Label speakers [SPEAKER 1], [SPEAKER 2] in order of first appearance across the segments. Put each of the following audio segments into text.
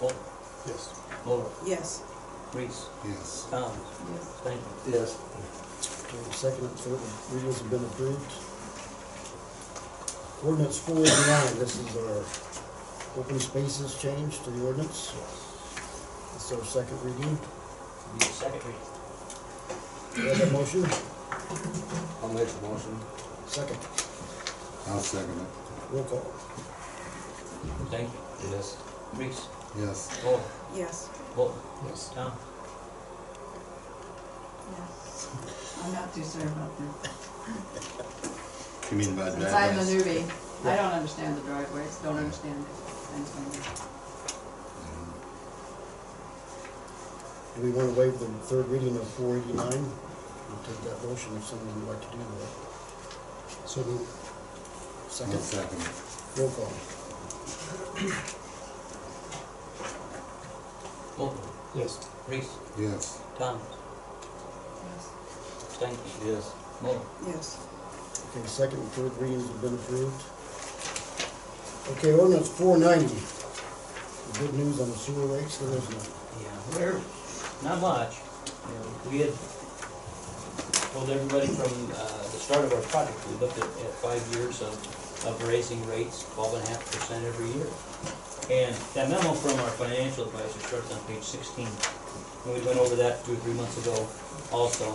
[SPEAKER 1] Bolton,
[SPEAKER 2] Yes.
[SPEAKER 1] Muller,
[SPEAKER 3] Yes.
[SPEAKER 1] Reese,
[SPEAKER 4] Yes.
[SPEAKER 1] Thomas,
[SPEAKER 3] Yes.
[SPEAKER 1] Stanton.
[SPEAKER 2] Yes. Okay, Second and third readings have been approved. Ordinance four eighty-nine, this is our open spaces change to the ordinance. It's our second reading.
[SPEAKER 1] Need a second reading.
[SPEAKER 2] Do you have a motion?
[SPEAKER 4] I'll make the motion.
[SPEAKER 2] Second,
[SPEAKER 4] I'll second it.
[SPEAKER 2] roll call.
[SPEAKER 1] Stanton,
[SPEAKER 4] Yes.
[SPEAKER 1] Reese,
[SPEAKER 4] Yes.
[SPEAKER 1] Muller,
[SPEAKER 3] Yes.
[SPEAKER 1] Bolton,
[SPEAKER 2] Yes.
[SPEAKER 1] Thomas.
[SPEAKER 5] Yes. I'm not too certain about this.
[SPEAKER 4] You mean by
[SPEAKER 5] Since I'm a
[SPEAKER 4] driveways?
[SPEAKER 5] newbie, I don't understand the driveways, don't understand things like that.
[SPEAKER 2] Do we want to waive the third reading of four eighty-nine? We'll take that motion if someone would like to do that. So moved.
[SPEAKER 4] I'll
[SPEAKER 2] Second,
[SPEAKER 4] second it.
[SPEAKER 2] roll call.
[SPEAKER 1] Bolton,
[SPEAKER 2] Yes.
[SPEAKER 1] Reese,
[SPEAKER 4] Yes.
[SPEAKER 1] Thomas,
[SPEAKER 5] Yes.
[SPEAKER 1] Stanton. Yes. Muller,
[SPEAKER 3] Yes.
[SPEAKER 2] Okay, second and third readings have been approved. Okay, ordinance four ninety. Good news on the sewer rates, there is none.
[SPEAKER 1] Yeah, we're, not much. You know, We had told everybody from uh, the start of our project, we looked at, at five years of, of raising rates, twelve and a half percent every year. And that memo from our financial advisor starts on page sixteen. And we went over that two or three months ago also,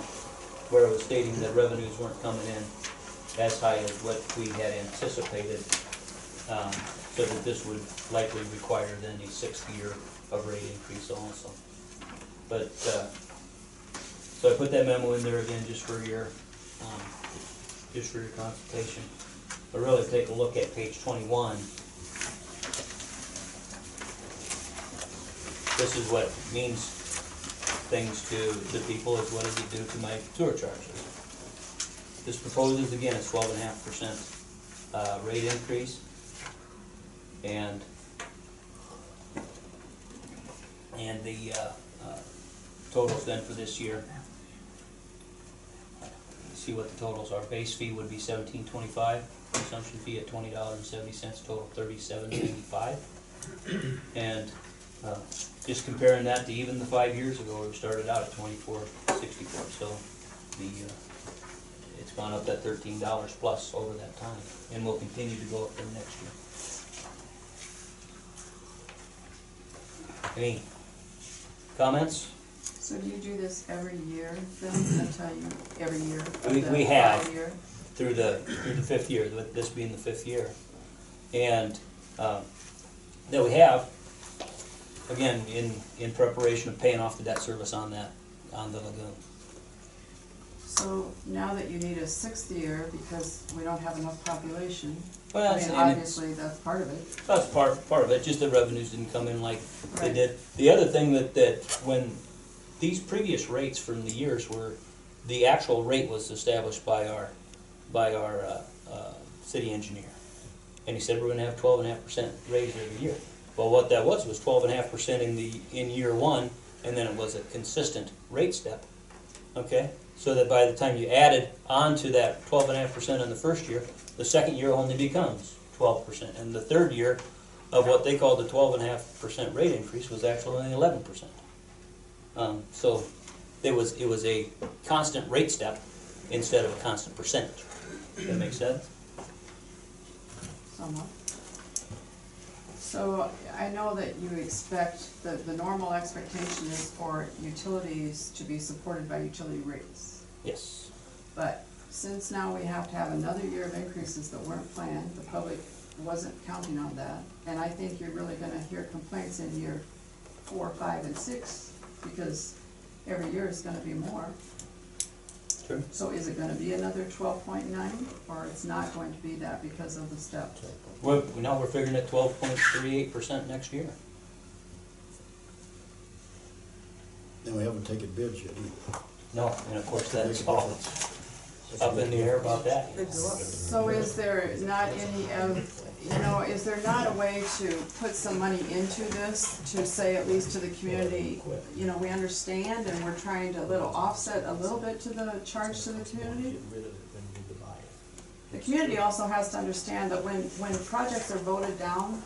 [SPEAKER 1] where it was stating that revenues weren't coming in as high as what we had anticipated. um, So that this would likely require then a sixth year of rate increase also. But, uh, so I put that memo in there again just for your, um, just for your consultation. But really take a look at page twenty-one. This is what means things to the people is what does it do to my sewer charges? This proposes again a twelve and a half percent, uh, rate increase. And and the uh, uh, totals then for this year. See what the totals are. Base fee would be seventeen twenty-five, consumption fee at twenty dollars and seventy cents, total thirty-seven eighty-five. And uh, just comparing that to even the five years ago, we started out at twenty-four sixty-four, so the, uh, it's gone up that thirteen dollars plus over that time, and will continue to go up for next year. Any comments?
[SPEAKER 5] So do you do this every year then, until you, every year?
[SPEAKER 1] We-
[SPEAKER 5] the
[SPEAKER 1] we have.
[SPEAKER 5] five year?
[SPEAKER 1] through the, through the fifth year, with this being the fifth year. And, um, that we have, again, in, in preparation of paying off the debt service on that, on the lagoon.
[SPEAKER 5] So now that you need a sixth year because we don't have enough population,
[SPEAKER 1] Well,
[SPEAKER 5] I
[SPEAKER 1] that's,
[SPEAKER 5] mean,
[SPEAKER 1] and it's-
[SPEAKER 5] obviously that's part of it.
[SPEAKER 1] that's part, part of it, just the revenues didn't come in like they
[SPEAKER 5] Right.
[SPEAKER 1] did. The other thing that, that when these previous rates from the years were, the actual rate was established by our, by our, uh, uh, city engineer. And he said we're gonna have twelve and a half percent raise every year. Well, what that was, was twelve and a half percent in the, in year one, and then it was a consistent rate step. Okay, so that by the time you added on to that twelve and a half percent in the first year, the second year only becomes twelve percent. And the third year of what they called the twelve and a half percent rate increase was actually only eleven percent. Um, so there was, it was a constant rate step instead of a constant percentage. That makes sense?
[SPEAKER 5] somewhat. So I know that you expect, the, the normal expectation is for utilities to be supported by utility rates.
[SPEAKER 1] Yes.
[SPEAKER 5] But since now we have to have another year of increases that weren't planned, the public wasn't counting on that. And I think you're really gonna hear complaints in year four, five, and six, because every year is gonna be more.
[SPEAKER 1] True.
[SPEAKER 5] So is it gonna be another twelve point nine, or it's not going to be that because of the step?
[SPEAKER 1] We're, now we're figuring at twelve point three eight percent next year.
[SPEAKER 2] And we haven't taken bids yet either.
[SPEAKER 1] No, and of course
[SPEAKER 2] Makes
[SPEAKER 1] that's
[SPEAKER 2] a
[SPEAKER 1] all
[SPEAKER 2] difference.
[SPEAKER 1] up in the air about that.
[SPEAKER 3] They go up.
[SPEAKER 5] So is there not any of, you know, is there not a way to put some money into this to say at least to the community, you know, we understand and we're trying to little offset a little bit to the charge to the community? The community also has to understand that when, when projects are voted down,